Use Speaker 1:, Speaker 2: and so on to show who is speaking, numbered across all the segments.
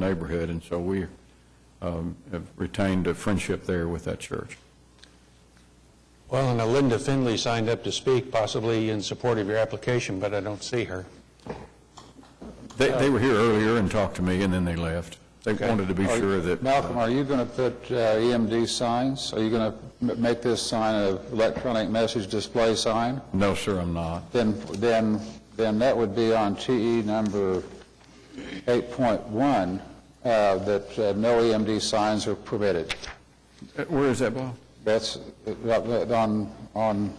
Speaker 1: neighborhood, and so we um, have retained a friendship there with that church.
Speaker 2: Well, and Linda Finley signed up to speak, possibly in support of your application, but I don't see her.
Speaker 1: They, they were here earlier and talked to me, and then they left. They wanted to be
Speaker 3: Are-
Speaker 1: sure that...
Speaker 3: Malcolm, are you going to put uh, EMD signs? Are you going to make this sign an electronic message display sign?
Speaker 1: No, sir, I'm not.
Speaker 3: Then, then, then that would be on TE number 8.1, uh, that uh, no EMD signs are permitted.
Speaker 1: Uh, Where is that, Bob?
Speaker 3: That's uh, on, on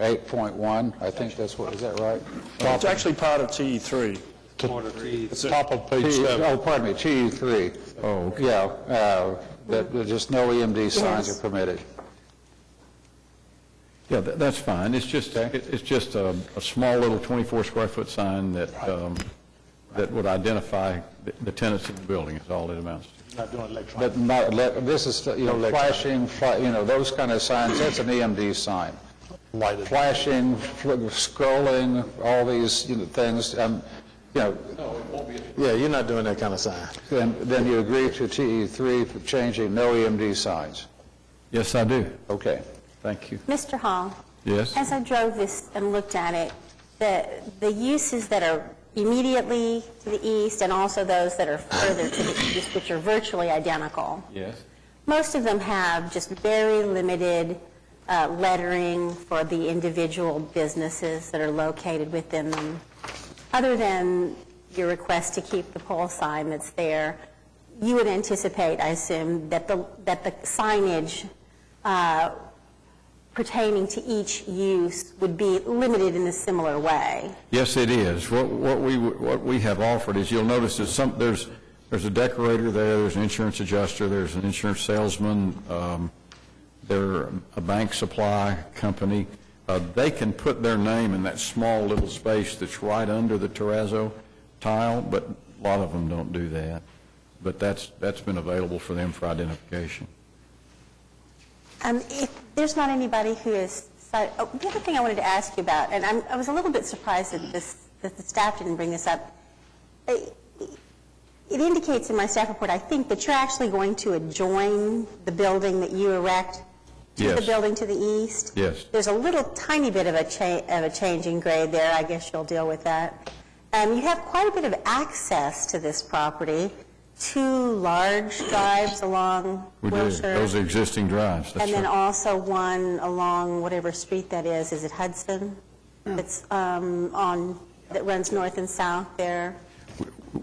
Speaker 3: 8.1, I think that's what, is that right?
Speaker 4: It's actually part of E TE3.
Speaker 2: It's top of page
Speaker 3: T-
Speaker 2: seven.
Speaker 3: Oh, pardon me, TE 3.
Speaker 1: Oh, okay.
Speaker 3: Yeah, uh, that, that just no EMD signs are permitted.
Speaker 1: Yeah, tha- that's fine. It's just,
Speaker 3: Okay.
Speaker 1: it- it's just a, a small little 24-square-foot sign that, um, that would identify the- the tenants of the building, is all it amounts to.
Speaker 3: But not, let- this is, you know, flashing, fla- you know, those kind of signs, that's an EMD sign.
Speaker 2: Lighted.
Speaker 3: Flashing, fl- scrolling, all these, you know, things, um, you know,
Speaker 5: Yeah, you're not doing that kind of sign.
Speaker 3: then, then you agree to TE three for changing no EMD signs.
Speaker 1: Yes, I do.
Speaker 3: Okay.
Speaker 1: Thank you.
Speaker 6: Mr. Hall?
Speaker 1: Yes?
Speaker 6: As I drove this and looked at it, the, the uses that are immediately to the east and also those that are further to the east, which are virtually identical,
Speaker 1: Yes.
Speaker 6: most of them have just very limited uh, lettering for the individual businesses that are located within them. Other than your request to keep the pole sign that's there, you would anticipate, I assume, that the, that the signage uh, pertaining to each use would be limited in a similar way.
Speaker 1: Yes, it is. What, what we, what we have offered is, you'll notice that some, there's, there's a decorator there, there's an insurance adjuster, there's an insurance salesman, um, they're a bank supply company. Uh, they can put their name in that small little space that's right under the terrazzo tile, but a lot of them don't do that. But that's, that's been available for them for identification.
Speaker 6: Um, If there's not anybody who is, si- oh, the other thing I wanted to ask you about, and I'm- I was a little bit surprised that this, that the staff didn't bring this up. Uh, It indicates in my staff report, I think, that you're actually going to adjoin the building that you erect to the
Speaker 1: Yes.
Speaker 6: building to the east?
Speaker 1: Yes.
Speaker 6: There's a little tiny bit of a cha, of a change in grade there, I guess you'll deal with that. Um, You have quite a bit of access to this property, two large drives along
Speaker 1: We do.
Speaker 6: Wilshire.
Speaker 1: Those are existing drives, that's
Speaker 6: And then
Speaker 1: right.
Speaker 6: also one along whatever street that is, is it Hudson?
Speaker 3: Mm.
Speaker 6: That's um, on, that runs north and south there.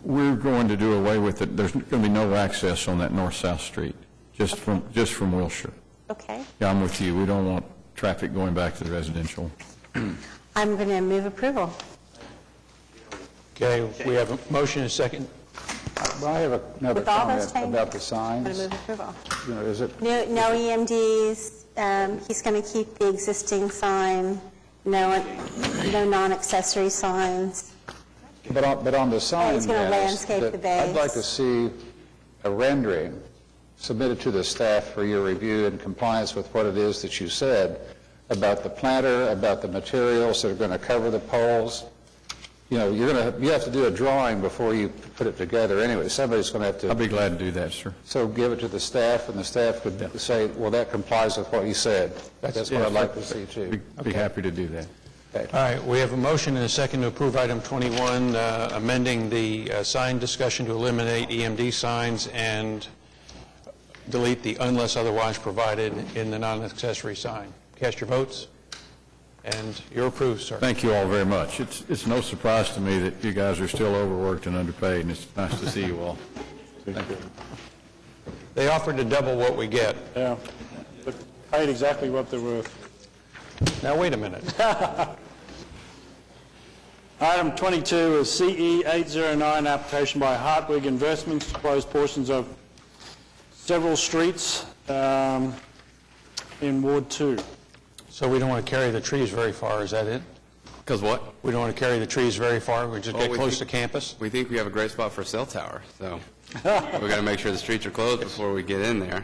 Speaker 1: We're going to do away with it. There's going to be no access on that north-south street, just from, just from Wilshire.
Speaker 6: Okay.
Speaker 1: Yeah, I'm with you. We don't want traffic going back to the residential.
Speaker 6: I'm going to move approval.
Speaker 2: Okay, we have a motion and a second.
Speaker 3: I have another
Speaker 6: With all those
Speaker 3: comment
Speaker 6: changes.
Speaker 3: about the
Speaker 6: I'm going to
Speaker 3: signs.
Speaker 6: move approval.
Speaker 3: You know, is it,
Speaker 6: No no EMDs, um, he's going to keep the existing sign, no, no non-accessory signs.
Speaker 3: but on, but on the sign.
Speaker 6: he's gonna
Speaker 3: Dennis,
Speaker 6: landscape
Speaker 3: that
Speaker 6: the base.
Speaker 3: I'd like to see a rendering submitted to the staff for your review in compliance with what it is that you said about the planter, about the materials that are going to cover the poles. You know, you're going to, you have to do a drawing before you put it together anyway. Somebody's going to have to.
Speaker 1: I'd be glad to do that, sir.
Speaker 3: So give it to the staff, and the staff would say, well, that complies with what he said. That's what I'd like to see,
Speaker 1: Be-
Speaker 3: too.
Speaker 1: Be happy to do that.
Speaker 2: All right, we have a motion and a second to approve item 21, uh, amending the uh, sign discussion to eliminate EMD signs and delete the unless otherwise provided in the non-accessory sign. Cast your votes, and you're approved, sir.
Speaker 1: Thank you all very much. It's, it's no surprise to me that you guys are still overworked and underpaid, and it's nice to see you all.
Speaker 2: They offered to double what we get.
Speaker 4: Yeah. They Paid exactly what they were.
Speaker 2: Now, wait a minute.
Speaker 4: Item 22 is E CE809, application by Hartwig Investments to close portions of several streets um, in Ward 2.
Speaker 2: So we don't want to carry the trees very far, is that it?
Speaker 7: Because what?
Speaker 2: We don't want to carry the trees very far, we just
Speaker 7: Well,
Speaker 2: get
Speaker 7: we
Speaker 2: close to
Speaker 7: think-
Speaker 2: campus?
Speaker 7: We think we have a great spot for a cell tower, so we've got to make sure the streets are closed before we get in there.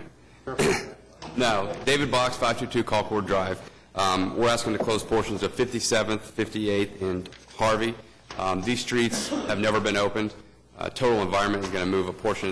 Speaker 7: No, David Box, 522 Colcord Drive. Um, We're asking to close portions of 57th, 58th, and Harvey. Um, These streets have never been opened. Uh, Total Environment is going to move a portion of